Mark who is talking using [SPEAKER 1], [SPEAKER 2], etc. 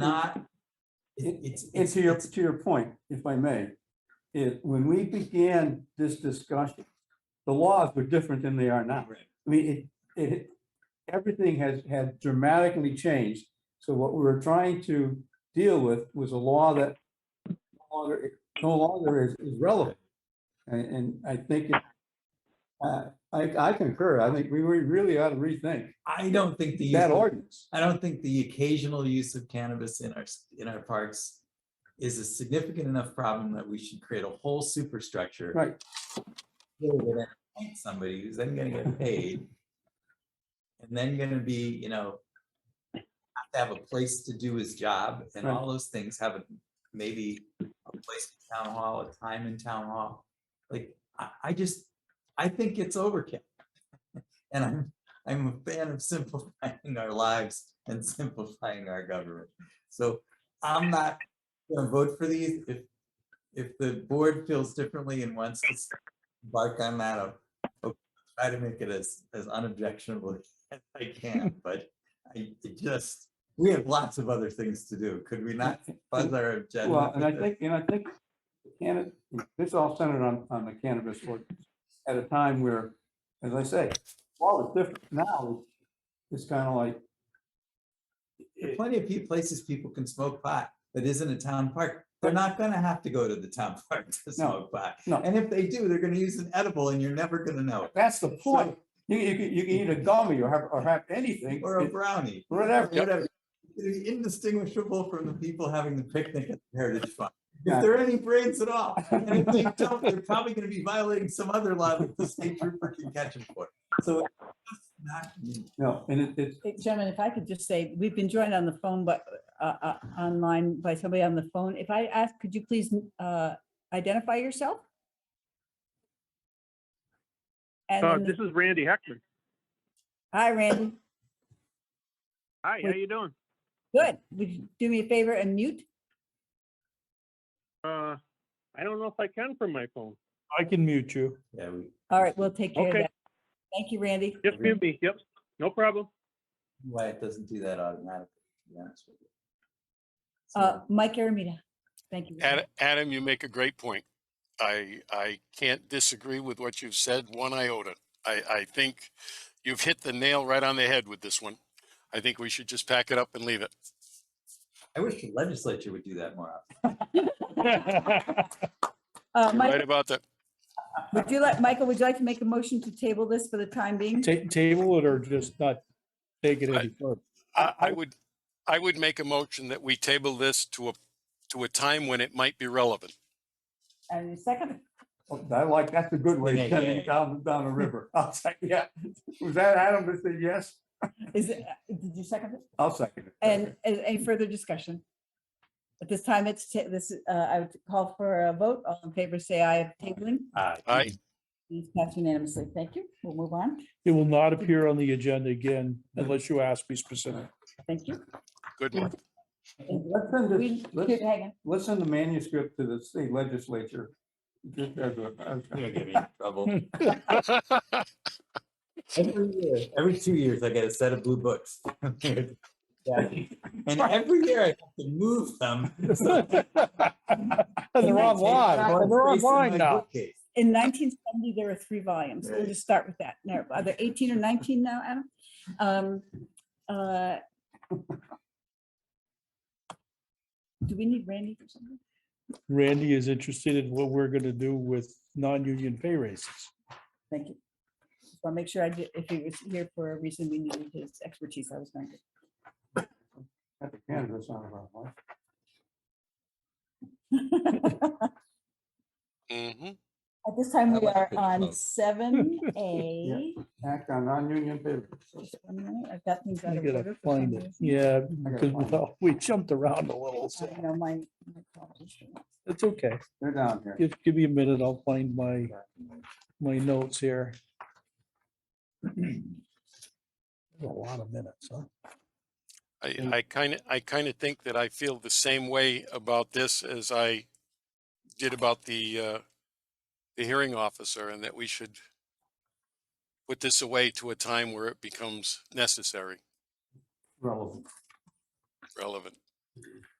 [SPEAKER 1] not,
[SPEAKER 2] It-
[SPEAKER 1] it's,
[SPEAKER 2] And to your, to your point, if I may, it, when we began this discussion, the laws were different than they are now.
[SPEAKER 1] Right.
[SPEAKER 2] I mean, it, it, everything has, had dramatically changed. So what we were trying to deal with was a law that no longer, no longer is, is relevant. And, and I think, it- uh, I, I concur. I think we re- really ought to rethink
[SPEAKER 1] I don't think the, use
[SPEAKER 2] that
[SPEAKER 1] of-
[SPEAKER 2] ordinance.
[SPEAKER 1] I don't think the occasional use of cannabis in our, s- in our parks is a significant enough problem that we should create a whole superstructure.
[SPEAKER 2] Right.
[SPEAKER 1] deal with it, find Somebody who's then gonna get paid. And then gonna be, you know, have to have a place to do his job and
[SPEAKER 2] Right.
[SPEAKER 1] all those things have a maybe a place in town hall, a time in town hall. Like, I, I just, I think it's overkill. And I'm, I'm a fan of simplifying our lives and simplifying our government. So I'm not gonna vote for these. If, if the board feels differently and wants to bark on that, I'll- I'll try to make it as, as unobjectionable as I can, but I it just, we have lots of other things to do. Could we not fuzz our agenda?
[SPEAKER 2] Well,
[SPEAKER 1] with
[SPEAKER 2] and I
[SPEAKER 1] this?
[SPEAKER 2] think, and I think cannabis, this all centered on, on the cannabis ordinance at a time where, as I say, all is different now. It's kind of like,
[SPEAKER 1] There are plenty of peo- places people can smoke pot that isn't a town park. They're not gonna have to go to the town park to smoke pot.
[SPEAKER 2] no.
[SPEAKER 1] And if they do, they're gonna use an edible and you're never gonna know it.
[SPEAKER 2] that's the point. You, you can, you can eat a gummy or have, or have anything,
[SPEAKER 1] Or a
[SPEAKER 2] it-
[SPEAKER 1] brownie,
[SPEAKER 2] whatever.
[SPEAKER 1] whatever. They're indistinguishable from the people having the picnic at the Heritage Farm. If
[SPEAKER 2] Yeah.
[SPEAKER 1] there are any brains at all, and if they don't, they're probably gonna be violating some other law that the state trooper can catch them for. So it's just not,
[SPEAKER 2] No, and it, it's,
[SPEAKER 3] Hey, Gentlemen, if I could just say, we've been joined on the phone, but uh, uh, online by somebody on the phone. If I ask, could you please uh, identify yourself? And
[SPEAKER 4] Uh,
[SPEAKER 3] then the-
[SPEAKER 4] this is Randy Heckman.
[SPEAKER 3] Hi, Randy.
[SPEAKER 4] Hi, how you doing?
[SPEAKER 3] Good. Would you do me a favor and mute?
[SPEAKER 4] Uh, I don't know if I can from my phone.
[SPEAKER 5] I can mute you.
[SPEAKER 1] yeah, we,
[SPEAKER 3] All right, we'll take care of
[SPEAKER 4] Okay.
[SPEAKER 3] that. Thank you, Randy.
[SPEAKER 4] Just mute me. Yep, no problem.
[SPEAKER 1] why it doesn't do that automatically, to be honest with you.
[SPEAKER 3] Uh,
[SPEAKER 1] So-
[SPEAKER 3] Mike Aramita. Thank you.
[SPEAKER 6] Ad- Adam, you make a great point. I, I can't disagree with what you've said one iota. I, I think you've hit the nail right on the head with this one. I think we should just pack it up and leave it.
[SPEAKER 1] I wish the legislature would do that more often.
[SPEAKER 3] Uh,
[SPEAKER 6] You're right
[SPEAKER 3] Michael,
[SPEAKER 6] about that.
[SPEAKER 3] would you like, Michael, would you like to make a motion to table this for the time being?
[SPEAKER 5] Ta- table it or just not take it any further.
[SPEAKER 6] I, I would, I would make a motion that we table this to a, to a time when it might be relevant.
[SPEAKER 3] And a second,
[SPEAKER 2] I like, that's a good way
[SPEAKER 1] Yeah,
[SPEAKER 2] of sending
[SPEAKER 1] yeah.
[SPEAKER 2] it down, down the river. I'll say, yeah. Was that Adam that said yes?
[SPEAKER 3] is it, did you second it?
[SPEAKER 2] I'll second it.
[SPEAKER 3] And, and any further discussion? At this time, it's, ta- this, uh, I would call for a vote. All in favor, say aye of tabling.
[SPEAKER 1] Uh,
[SPEAKER 6] I,
[SPEAKER 3] It's passed unanimously. Thank you. We'll move on.
[SPEAKER 5] It will not appear on the agenda again unless you ask me specific.
[SPEAKER 3] Thank you.
[SPEAKER 6] good one.
[SPEAKER 2] Let's send
[SPEAKER 3] We,
[SPEAKER 2] this, let's,
[SPEAKER 3] should- hang on.
[SPEAKER 2] let's send the manuscript to the state legislature. Just as a- as a-
[SPEAKER 1] You're gonna get me in trouble. Every year, every two years, I get a set of blue books. Yeah. And every year I have to move them.
[SPEAKER 5] And they're online, and they're online now.
[SPEAKER 3] in nineteen seventy, there were three volumes. We'll just start with that. Now, are there eighteen or nineteen now, Adam? Um, uh, Do we need Randy for something?
[SPEAKER 5] Randy is interested in what we're gonna do with non-union pay raises.
[SPEAKER 3] Thank you. So I'll make sure I, did- if he was here for a reason, we needed his expertise. I was going to.
[SPEAKER 2] Got the canvas on about one.
[SPEAKER 3] At
[SPEAKER 6] Mhm.
[SPEAKER 3] this time,
[SPEAKER 1] That
[SPEAKER 3] we
[SPEAKER 1] was a
[SPEAKER 3] are
[SPEAKER 1] good
[SPEAKER 3] on
[SPEAKER 1] vote.
[SPEAKER 3] seven A.
[SPEAKER 2] Act on non-union paper.
[SPEAKER 3] I've got things out
[SPEAKER 5] I
[SPEAKER 3] of
[SPEAKER 5] gotta
[SPEAKER 3] order. for some
[SPEAKER 5] find it.
[SPEAKER 3] reason.
[SPEAKER 5] Yeah,
[SPEAKER 2] gotta
[SPEAKER 5] because we
[SPEAKER 2] find it.
[SPEAKER 5] all- we jumped around a little, so
[SPEAKER 3] I know my. my problems.
[SPEAKER 5] it's okay.
[SPEAKER 2] They're down here.
[SPEAKER 5] Give, give me a minute. I'll find my, my notes here. A lot of minutes, huh?
[SPEAKER 6] I, I kind of, I kind of think that I feel the same way about this as I did about the, uh, the hearing officer and that we should put this away to a time where it becomes necessary,
[SPEAKER 2] Relevant.
[SPEAKER 6] relevant.